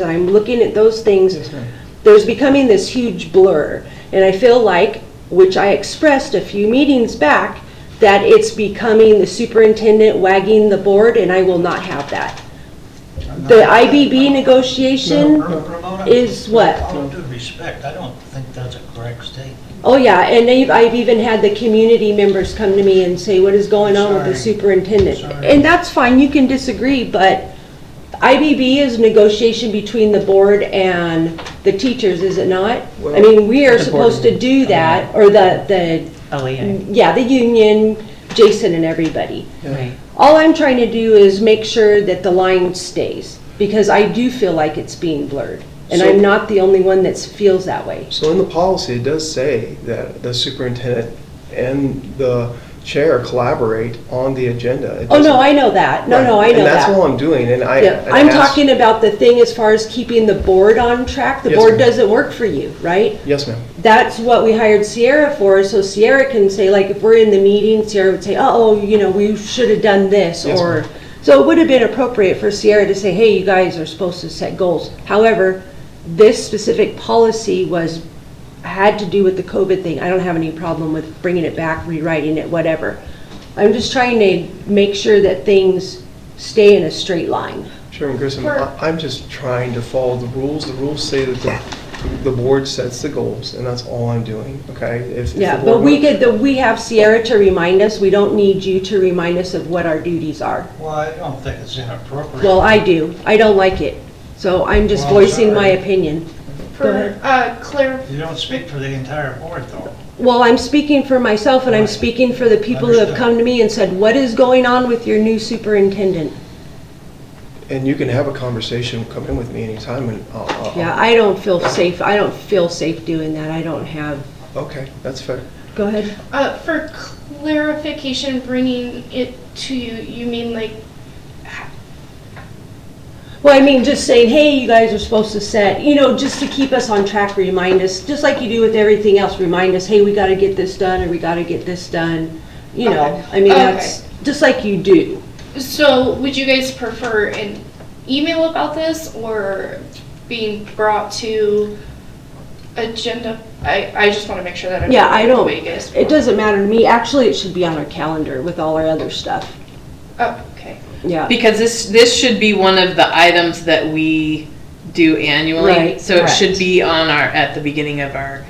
and I'm looking at those Yes, things, ma'am. there's becoming this huge blur. And I feel like, which I expressed a few meetings back, that it's becoming the superintendent wagging the board, and I will not have that. The IBB negotiation Ramona, is with what? All due respect, I don't think that's a correct statement. Oh, yeah, and they've, I've even had the community members come to me and say, what is going on with the Sorry. superintendent? Sorry. And that's fine, you can disagree, but IBB is negotiation between the board and the teachers, is it not? I Well, mean, we are the board supposed to and- do that, or the, the, LEA, yeah, the union, Jason and everybody. Yeah. right. All I'm trying to do is make sure that the line stays, because I do feel like it's being blurred. And So- I'm not the only one that feels that way. So in the policy, it does say that the superintendent and the chair collaborate on the agenda. It Oh, doesn't- no, I know that. No, no, Right. I know And that. that's all I'm doing, and I. Yeah, and I I'm asked- talking about the thing as far as keeping the board on track. The Yes, board ma'am. doesn't work for you, right? Yes, ma'am. That's what we hired Sierra for, so Sierra can say, like, if we're in the meeting, Sierra would say, oh, you know, we should have done this, Yes, or. ma'am. So it would have been appropriate for Sierra to say, hey, you guys are supposed to set goals. However, this specific policy was, had to do with the COVID thing. I don't have any problem with bringing it back, rewriting it, whatever. I'm just trying to make sure that things stay in a straight line. Chairman Grissom, I- I'm just trying to follow the rules. The rules say that the, the board sets the goals, and that's all I'm doing, okay? If- if the Yeah, board but we wants- get, the- we have Sierra to remind us, we don't need you to remind us of what our duties are. Well, I don't think it's inappropriate. Well, I do, I don't like it, so I'm just Well, I'm voicing my sorry. opinion. Go For, ahead. uh, clar- You don't speak for the entire board, though. Well, I'm speaking for myself, and I'm speaking for the people who have Understood. come to me and said, what is going on with your new superintendent? And you can have a conversation, come in with me anytime, and I'll- I'll. Yeah, I don't feel safe, I don't feel safe doing that, I don't have, Okay, that's fair. go ahead. uh, for clarification, bringing it to you, you mean like, Well, I mean, just saying, hey, you guys are supposed to set, you know, just to keep us on track, remind us, just like you do with everything else, remind us, hey, we gotta get this done, or we gotta get this done, you know, I mean, Okay. that's, just like you do. so would you guys prefer an email about this or being brought to agenda? I, I just want to make sure that I'm. Yeah, I doing it the don't, way you guys- it doesn't matter to me, actually, it should be on our calendar with all our other stuff, Oh, okay. yeah. Because this, this should be one of the items that we do annually. Right, So it should correct. be on our, at the beginning of our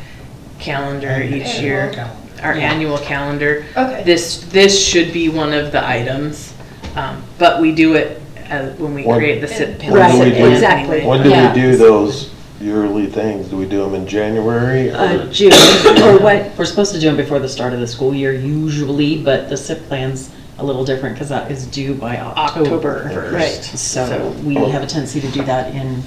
calendar each Annual year, calendar. our Yeah. annual calendar. Okay. This, this should be one of the items, um, but we do it uh, when we When- create the sit Right, pin. sit pin exactly. anyway. When do Yeah. we do those yearly things? Do we do them in January? Uh, or- June, or what, We're supposed to do them before the start of the school year usually, but the SIP plan's a little different because that is due by October. October. Right. Right. So we have a tendency to do that in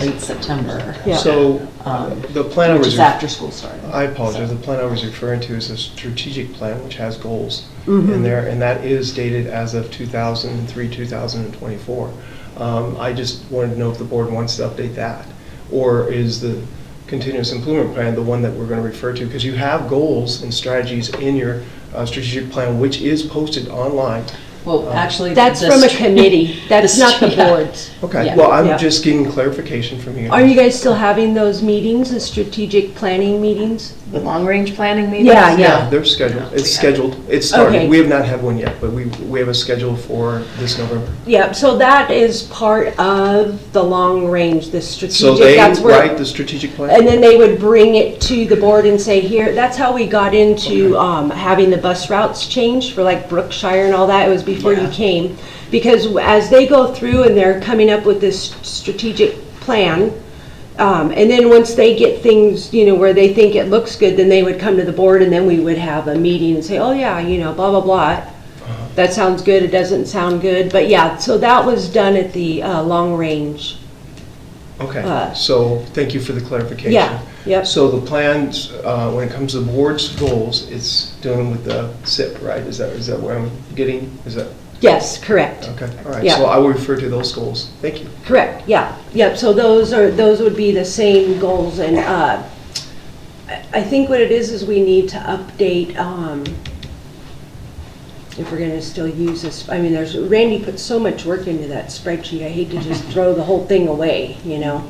late September, Yeah. So, um, the plan I which was. is after school started. I apologize, the plan I was referring to is a strategic plan which has goals Mm-hmm. in there, and that is dated as of 2003, 2024. Um, I just wanted to know if the board wants to update that, or is the continuous improvement plan the one that we're going to refer to? Because you have goals and strategies in your uh, strategic plan, which is posted online. Uh, Well, actually. that's the from a str- committee, that's not the yeah. board's. Okay, Yeah. well, I'm Yeah. just getting clarification from you. Are you guys still having those meetings, the strategic planning meetings? The long-range planning meetings? Yeah, yeah. Yeah, they're scheduled, we it's have it. scheduled, it's Oh, Okay. started, we have not had one yet, but we, we have a schedule for this November. Yeah, so that is part of the long range, the So strategic, they that's write where, the strategic and plan? then they would bring it to the board and say, here, that's how we got into um, having the bus routes changed for like Brookshire and all that, it was before you Yeah. came. Because as they go through and they're coming up with this strategic plan, um, and then once they get things, you know, where they think it looks good, then they would come to the board and then we would have a meeting and say, oh yeah, you know, blah, blah, blah. That sounds good, it doesn't sound good, but yeah, so that was done at the uh, long range. uh, Okay, so thank you for the clarification. Yeah, yep. So the plans, uh, when it comes to board's goals, it's dealing with the SIP, right? Is that, is that where I'm getting, is that, Yes, correct, okay, all right. Yeah. So I will refer to those goals. Thank you. correct, yeah, yep, so those are, those would be the same goals and, uh, I I think what it is, is we need to update, um, if we're gonna still use this, I mean, there's, Randy put so much work into that spreadsheet, I hate to just throw the whole thing away, you know?